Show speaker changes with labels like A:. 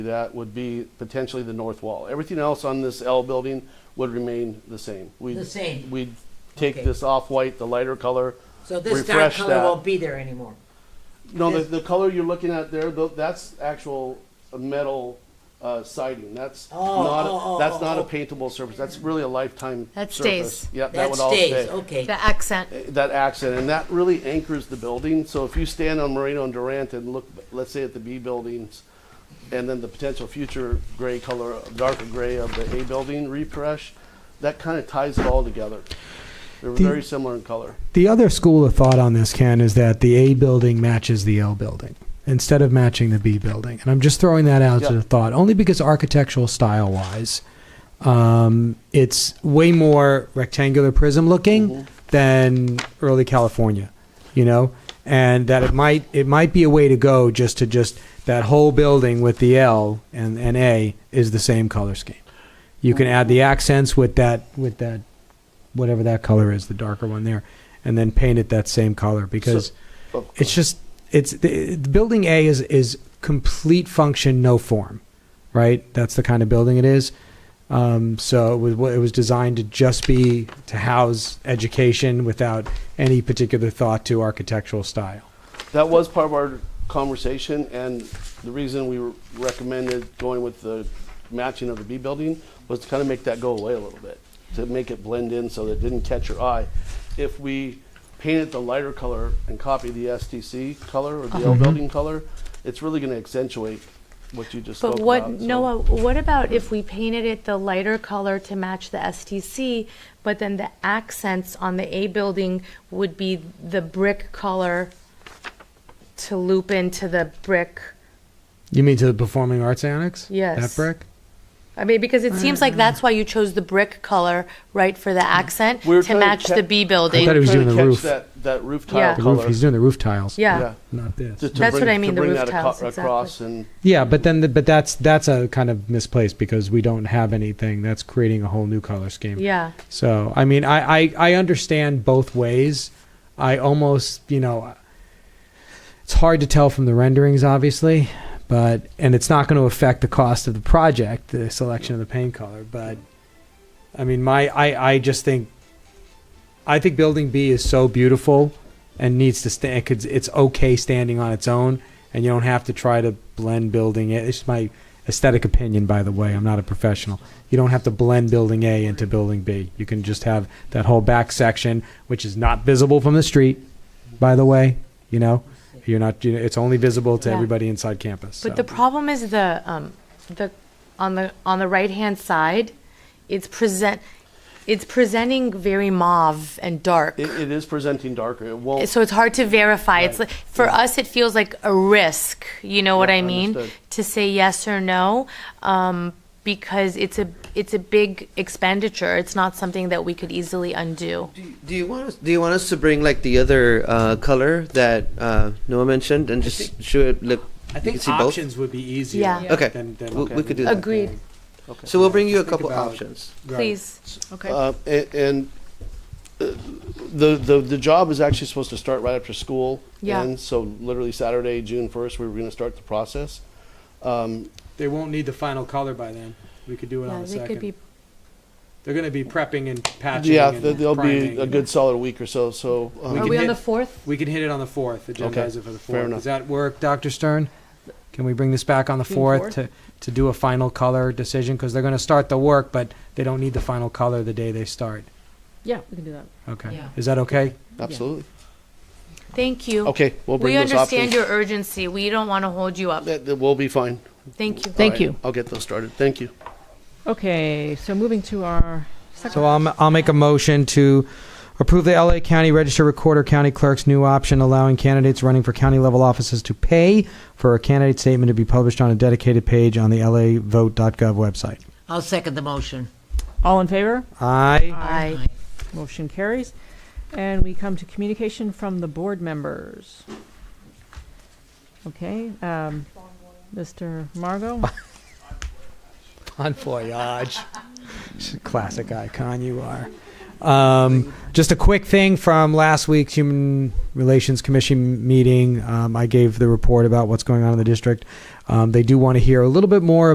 A: That would be potentially the north wall. Everything else on this L building would remain the same. We'd-
B: The same.
A: We'd take
B: Okay.
A: this off-white, the lighter color.
B: So this dark
A: refresh
B: color
A: that.
B: won't be there anymore.
A: No, the,
B: This-
A: the color you're looking at there, tho- that's actual metal uh, siding. That's
B: Oh, oh,
A: not,
B: oh,
A: that's
B: oh,
A: not a
B: oh.
A: paintable surface. That's really a lifetime
C: That
A: surface.
C: stays.
A: Yeah, that
B: That
A: would all
B: stays,
A: stay.
B: okay.
C: The accent.
A: That accent, and that really anchors the building. So if you stand on Moreno and Durant and look, let's say at the B buildings, and then the potential future gray color, darker gray of the A building refresh, that kind of ties it all together. They're
D: The-
A: very similar in color.
D: The other school of thought on this, Ken, is that the A building matches the L building instead of matching the B building. And I'm just throwing that out as
A: Yeah.
D: a thought, only because architectural style wise, um, it's way more rectangular prism looking than early California, you know? And that it might it might be a way to go just to just that whole building with the L and, and A is the same color scheme. You can add the accents with that with that whatever that color is, the darker one there, and then paint it that same color because
A: Oh,
D: it's just it's the, the building A is is complete function no form, right? That's the kind of building it is. Um, so it was what it was designed to just be to house education without any particular thought to architectural style.
A: That was part of our conversation, and the reason we were- recommended going with the matching of the B building was to kind of make that go away a little bit, to make it blend in so that it didn't catch your eye. If we painted the lighter color and copy the STC color or the L
D: Mm-hmm.
A: building color, it's really going to accentuate what you just spoke
C: But
A: about.
C: what,
A: so-
C: Noah, what about if we painted it the lighter color to match the STC, but then the accents on the A building would be the brick color to loop into the brick?
D: You mean to the Performing Arts Annex?
C: Yes.
D: That brick.
C: I mean, because it seems like that's why you chose the brick color, right, for the accent,
A: Mm-hmm. We were
C: to
A: trying to
C: match
A: ca-
C: the B
D: I thought
C: building.
D: it
A: Trying
D: was
A: to
D: doing the
A: catch
D: roof.
A: That, that roof
C: Yeah.
A: tile
D: The roof.
A: color.
D: He's doing the roof tiles.
C: Yeah,
D: Not this.
A: to- to
C: That's
A: bring-
C: what I mean,
A: to
C: the
A: bring
C: roof
A: that aco-
C: tiles,
A: Across and
D: Yeah, but then the, but that's that's a kind of misplaced because we don't have anything that's creating a whole new color scheme.
C: yeah.
D: So I mean, I, I I understand both ways. I almost you know, it's hard to tell from the renderings, obviously, but and it's not going to affect the cost of the project, the selection of the paint color. But I mean, my I I just think, I think Building B is so beautiful and needs to stand. Cause it's okay standing on its own, and you don't have to try to blend building it. It's my aesthetic opinion, by the way. I'm not a professional. You don't have to blend building A into building B. You can just have that whole back section, which is not visible from the street, by the way. You know, you're not. You know, it's only visible to
C: Yeah.
D: everybody inside campus.
C: But
D: so.
C: the problem is the, um, the, on the, on the right-hand side, it's present, it's presenting very mauve and dark.
A: it, it is presenting darker. It won't.
C: So it's hard to verify. It's like, for us, it feels like a risk. You know what
A: Yeah,
C: I mean?
A: understood.
C: To say yes or no, um, because it's a it's a big expenditure. It's not something that we could easily undo.
E: Do you- Do you want us? Do you want us to bring like the other uh, color that uh, Noah mentioned and just
D: think-
E: show it? Look,
D: I
E: you can see both.
D: would be easier.
C: Yeah.
E: Okay.
D: Than, than
E: We, we could do that.
C: Agreed.
E: So we'll bring you a
D: Just think
E: couple
D: about-
E: options.
C: Please.
F: Okay.
A: Uh, a- and uh, the, the, the job is actually supposed to start right after school.
C: Yeah.
A: ends. so literally Saturday, June first, we were gonna start the process. Um,
D: They won't need the final color by then. We could do it
C: Yeah,
D: on the
C: they
D: second.
C: could be.
D: They're going to be prepping and patching.
A: yeah,
D: and
A: th- there'll be
D: priming
A: a
D: and-
A: good solid week or so, so. um,
D: We
C: Are
D: can
C: we on
D: hit-
C: the fourth?
D: We can hit it on the fourth, agendize
A: Okay,
D: it for the fourth.
A: fair enough.
D: Does that work, Dr. Stern? Can we bring this back on the
F: June
D: fourth
F: 4th?
D: to, to do a final color decision? Because they're going to start the work, but they don't need the final color the day they start.
F: Yeah, we can do that.
D: Okay.
B: Yeah.
D: Is that okay?
A: Absolutely.
C: Thank you.
A: Okay, we'll
C: We
A: bring those
C: understand
A: options.
C: your urgency. We don't want to hold you up.
A: That, that we'll be fine.
C: Thank you.
F: Thank
A: All right,
F: you.
A: I'll get those started. Thank you.
F: Okay, so moving to our
D: So I'll, m- I'll make a motion to approve the LA County Register Recorder County Clerk's new option allowing candidates running for county level offices to pay for a candidate statement to be published on a dedicated page on the lavote.gov website.
B: I'll second the motion.
F: all in favor.
D: Aye.
C: Aye.
F: Motion carries, and we come to communication from the board members. Okay, um, Mr. Margot.
D: Bon voyage. Classic icon you are. Um, just a quick thing from last week's Human Relations Commission meeting. Um, I gave the report about what's going on in the district. Um, they do want to hear a little bit more